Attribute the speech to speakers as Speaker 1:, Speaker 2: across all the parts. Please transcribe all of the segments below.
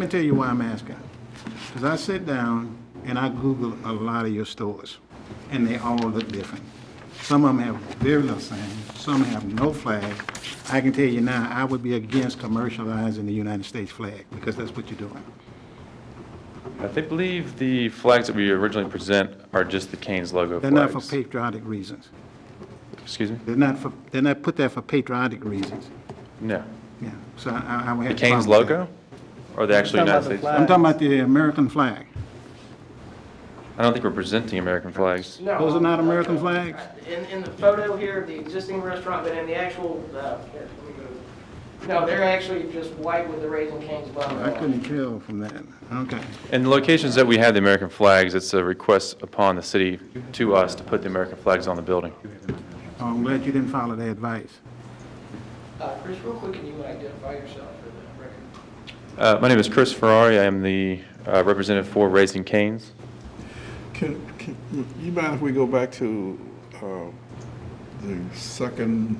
Speaker 1: Let me tell you why I'm asking. Because I sit down and I Google a lot of your stores, and they all look different. Some of them have very little sign, some have no flag. I can tell you now, I would be against commercializing the United States flag, because that's what you're doing.
Speaker 2: I think- believe the flags that we originally present are just the Canes logo
Speaker 1: They're
Speaker 2: flags.
Speaker 1: not for patriotic reasons.
Speaker 2: Excuse me?
Speaker 1: They're not for, they're not put there for patriotic reasons.
Speaker 2: No.
Speaker 1: Yeah, so I, I would have.
Speaker 2: The
Speaker 1: a problem with
Speaker 2: Canes
Speaker 1: that.
Speaker 2: logo? Or the actual
Speaker 3: talking about
Speaker 2: United
Speaker 3: the
Speaker 2: States?
Speaker 3: flag.
Speaker 1: I'm talking about the American flag.
Speaker 2: I don't think we're presenting American flags.
Speaker 3: No.
Speaker 1: Those are not
Speaker 3: um,
Speaker 1: American flags?
Speaker 3: In, in the photo here of the existing restaurant, but in the actual, uh, here, let me go. No, they're actually just white with the Raising Cane's logo.
Speaker 1: I
Speaker 3: on.
Speaker 1: couldn't tell from that. Okay.
Speaker 2: In the locations that we have the American flags, it's a request upon the city to us to put the American flags on the building.
Speaker 1: Oh, I'm glad you didn't follow their advice.
Speaker 3: Uh, Chris, real quick, can you identify yourself for the record?
Speaker 2: Uh, My name is Chris Ferrari. I am the uh, representative for Raising Canes.
Speaker 4: Can, can, you mind if we go back to, uh, the second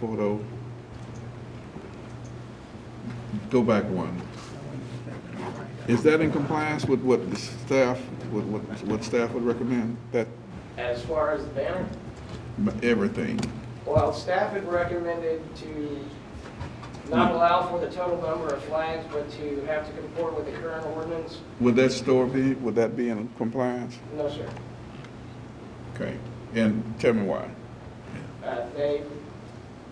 Speaker 4: photo? Go back one. Is that in compliance with what the staff, what, what, what staff would recommend? That,
Speaker 3: As far as the banner?
Speaker 4: everything?
Speaker 3: Well, staff had recommended to
Speaker 1: Hmm.
Speaker 3: not allow for the total number of flags, but to have to conform with the current ordinance.
Speaker 4: Would that store be, would that be in compliance?
Speaker 3: No, sir.
Speaker 4: Okay, and tell me why.
Speaker 3: Uh, They,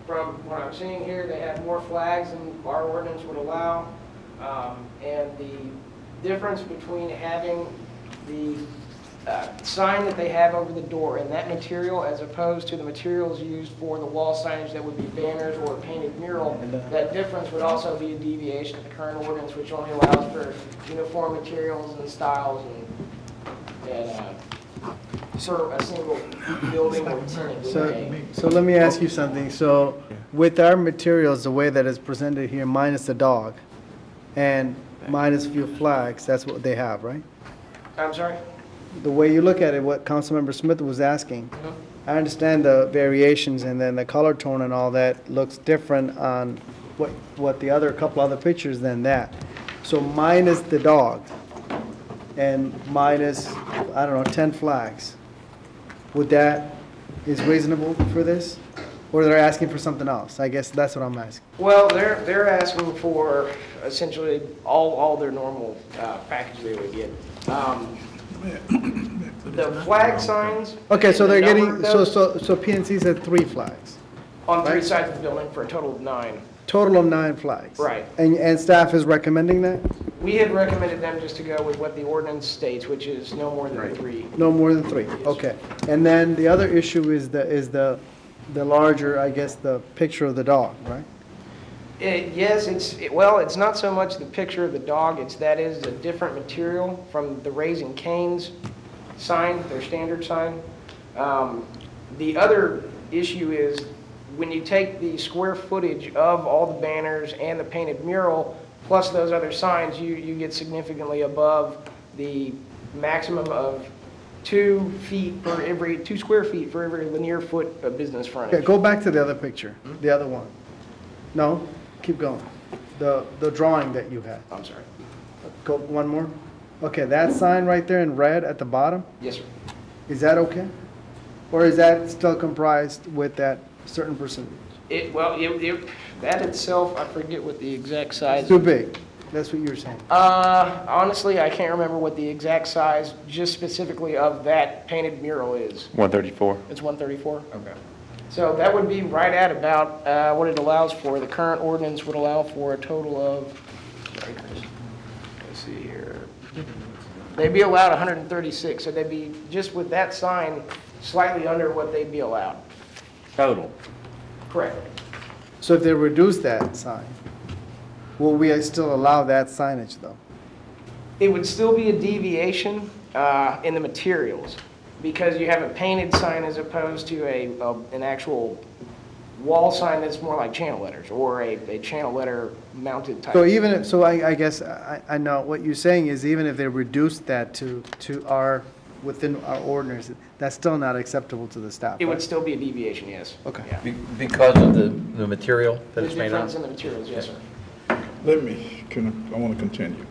Speaker 3: from what I'm seeing here, they have more flags than our ordinance would allow. Um, And the difference between having the uh, sign that they have over the door and that material as opposed to the materials used for the wall signage that would be banners or a painted mural, that difference would also be a deviation of the current ordinance, which only allows for uniform materials and styles and, and uh, serve a single building or tenant.
Speaker 5: So, so let me ask you something. So with our materials, the way that is presented here, minus the dog and minus few flags, that's what they have, right?
Speaker 3: I'm sorry?
Speaker 5: The way you look at it, what Councilmember Smith was asking, I understand the variations and then the color tone and all that looks different on what, what the other, couple other pictures than that. So minus the dog and minus, I don't know, 10 flags. Would that, is reasonable for this? Or they're asking for something else? I guess that's what I'm asking.
Speaker 3: Well, they're, they're asking for essentially all, all their normal uh, package they would get. Um, The flag signs.
Speaker 5: Okay, so
Speaker 3: and the
Speaker 5: they're
Speaker 3: number
Speaker 5: getting,
Speaker 3: of
Speaker 5: so,
Speaker 3: those
Speaker 5: so, so PNC said three flags,
Speaker 3: On three sides of the building for a total of nine.
Speaker 5: total of nine flags.
Speaker 3: Right.
Speaker 5: And, and staff is recommending that?
Speaker 3: We had recommended them just to go with what the ordinance states, which is no more than three.
Speaker 5: No more than three, okay. And then the other issue is the, is the, the larger, I guess, the picture of the dog, right?
Speaker 3: Eh, Yes, it's, it- well, it's not so much the picture of the dog, it's that is a different material from the Raising Cane's sign, their standard sign. Um, The other issue is when you take the square footage of all the banners and the painted mural, plus those other signs, you, you get significantly above the maximum of two feet per every, two square feet for every linear foot of business
Speaker 5: Okay,
Speaker 3: frontage.
Speaker 5: go back to the other picture, the other one. No, keep going. The, the drawing that you had.
Speaker 3: I'm sorry.
Speaker 5: Go, one more? Okay, that sign right there in red at the bottom,
Speaker 3: Yes, sir.
Speaker 5: is that okay? Or is that still comprised with that certain percentage?
Speaker 3: It, well, it, it, that itself, I forget what the exact
Speaker 5: It's
Speaker 3: size.
Speaker 5: too big, that's what you're saying.
Speaker 3: Uh, honestly, I can't remember what the exact size, just specifically of that painted mural is.
Speaker 2: 134.
Speaker 3: It's one thirty-four? Okay. So that would be right at about, uh, what it allows for. The current ordinance would allow for a total of, sorry, Chris. let's see here. They'd be allowed hundred and thirty-six, so they'd be, just with that sign, slightly under what they'd be allowed.
Speaker 6: Total.
Speaker 3: Correct.
Speaker 5: So if they reduce that sign, will we still allow that signage though?
Speaker 3: It would still be a deviation uh, in the materials, because you have a painted sign as opposed to a, a- an actual wall sign that's more like channel letters, or a, a channel letter mounted type.
Speaker 5: So even if, so I, I guess, I, I know, what you're saying is even if they reduce that to, to our, within our ordinance, that's still not acceptable to the staff.
Speaker 3: It would
Speaker 5: right?
Speaker 3: still be a deviation, yes.
Speaker 5: Okay.
Speaker 3: Yeah.
Speaker 6: Because of the, the material that
Speaker 3: The
Speaker 6: it's made out of?
Speaker 3: difference in the materials, yes, sir.
Speaker 4: Let me, can, I- I want to continue.